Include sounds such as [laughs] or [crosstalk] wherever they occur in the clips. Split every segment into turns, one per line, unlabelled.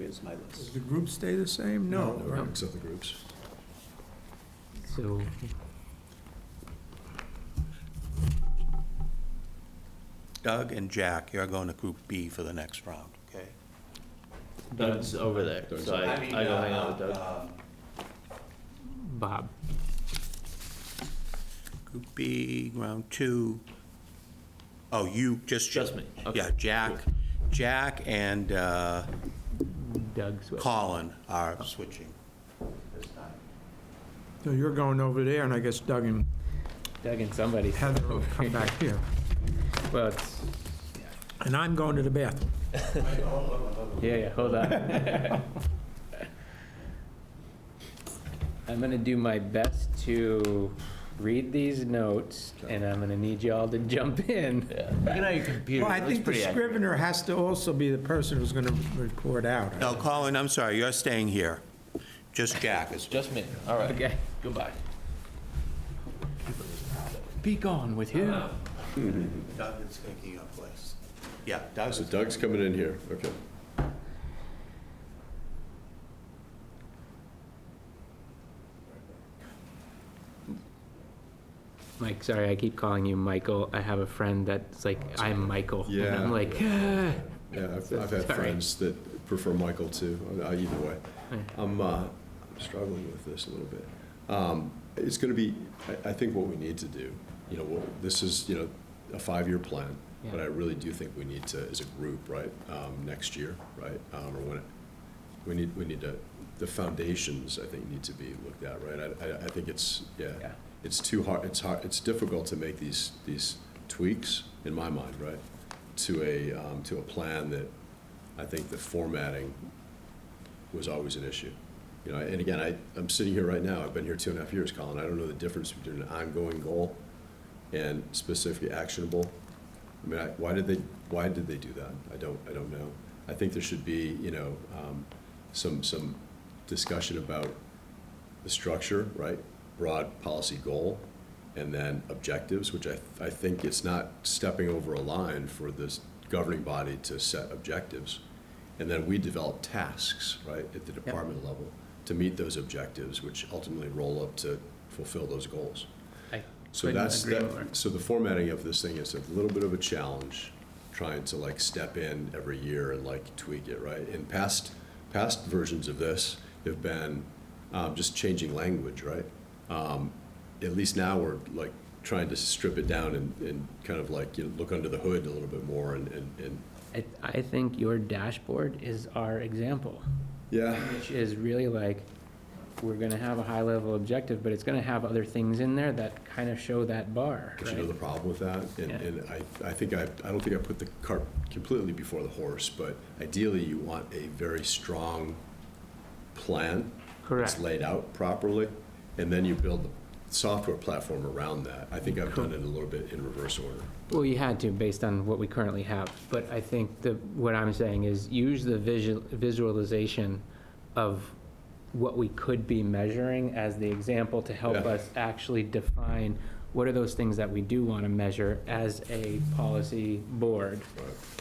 is my
Does
list.
the group stay the same? No. right.
Except the groups.
So,
Doug and Jack, you're going to Group B for the next round, okay?
Doug's over there, so I, I go hang out
uh,
with Doug. Bob.
Group B, round two. Oh, you, just.
Just me, okay.
Yeah, Jack, Jack and uh,
Doug Swift.
Colin are switching this time.
So you're going over there, and I guess Doug and
Doug and somebody.
Heather will come back here.
Well, it's,
And I'm going to the bathroom.
yeah, yeah, hold on. I'm gonna do my best to read these notes, and I'm gonna need y'all to jump in.
Look at your computer.
Well, I think the scrivener has to also be the person who's going to report out.
No, Colin, I'm sorry, you're staying here. Just Jack is.
Just me. All right.
Okay.
Goodbye.
Be gone with you.
Doug is taking your place. Yeah, Doug's.
So Doug's coming in here, okay.
Mike, sorry, I keep calling you Michael. I have a friend that's like, I'm Michael. And
Yeah.
I'm like, "Ah."
Yeah, I've, I've
Sorry.
had friends that prefer Michael too, uh, either way. I'm, uh, I'm struggling with this a little bit. Um, It's gonna be, I, I think what we need to do, you know, what- this is, you know, a five-year plan, but
Yeah.
I really do think we need to, as a group, right, um, next year, right? um, Or when, it- we need, we need to, the foundations, I think, need to be looked at, right? I, I, I think it's, yeah,
Yeah.
it's too hard, it's hard, it's difficult to make these, these tweaks, in my mind, right? To a, um, to a plan that I think the formatting was always an issue. You know, and again, I, I'm sitting here right now, I've been here two and a half years, Colin, I don't know the difference between an ongoing goal and specific actionable. I mean, I, why did they, why did they do that? I don't, I don't know. I think there should be, you know, um, some, some discussion about the structure, right? Broad policy goal, and then objectives, which I, I think it's not stepping over a line for this governing body to set objectives. And then we develop tasks, right, at the department level to meet those objectives, which ultimately roll up to fulfill those goals.
I
So
couldn't
that's,
agree
that-
more.
so the formatting of this thing is a little bit of a challenge, trying to like step in every year and like tweak it, right? And past, past versions of this have been um, just changing language, right? Um, At least now we're like trying to strip it down and, and kind of like, you know, look under the hood a little bit more and, and, and,
I, I think your dashboard is our example,
yeah.
which is really like, we're gonna have a high level objective, but it's gonna have other things in there that kind of show that bar,
But you know
right?
the problem with that? And,
Yeah.
and I, I think I, I don't think I put the cart completely before the horse, but ideally you want a very strong plan.
Correct.
It's laid out properly, and then you build the software platform around that. I think I've done it a little bit in reverse order.
Well, you had to based on what we currently have, but I think the, what I'm saying is use the visual, visualization of what we could be measuring as the example to help
Yeah.
us actually define what are those things that we do want to measure as a policy board?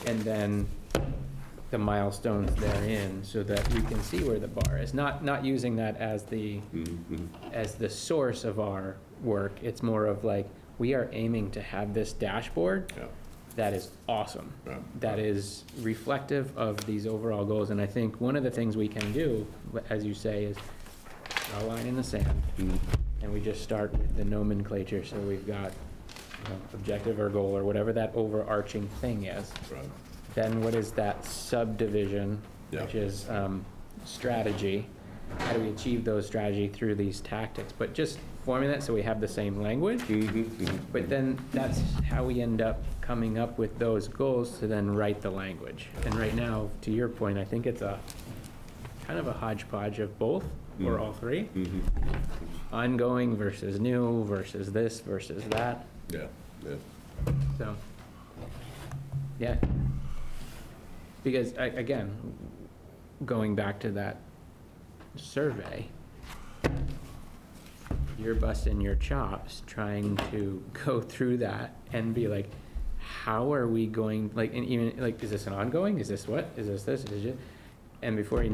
And then the milestones therein so that we can see where the bar is. Not, not using that as the,
Mm-hmm.
as the source of our work. It's more of like, we are aiming to have this dashboard
Yeah.
that is awesome.
Yeah.
That is reflective of these overall goals. And I think one of the things we can do, as you say, is draw a line in the sand.
Mm-hmm.
And we just start with the nomenclature. So we've got, you know, objective or goal or whatever that overarching thing is.
Right.
Then what is that subdivision,
Yeah.
which is um, strategy? How do we achieve those strategy through these tactics? But just forming that so we have the same language. But then that's how we end up coming up with those goals to then write the language. And right now, to your point, I think it's a kind of a hodgepodge of both or all three. Ongoing versus new versus this versus that.
Yeah, yeah.
So, yeah. Because, a- again, going back to that survey, you're busting your chops trying to [laughs] go through that and be like, how are we going, like, and even, like, is this an ongoing? Is this what? Is this this? Is it? And before you know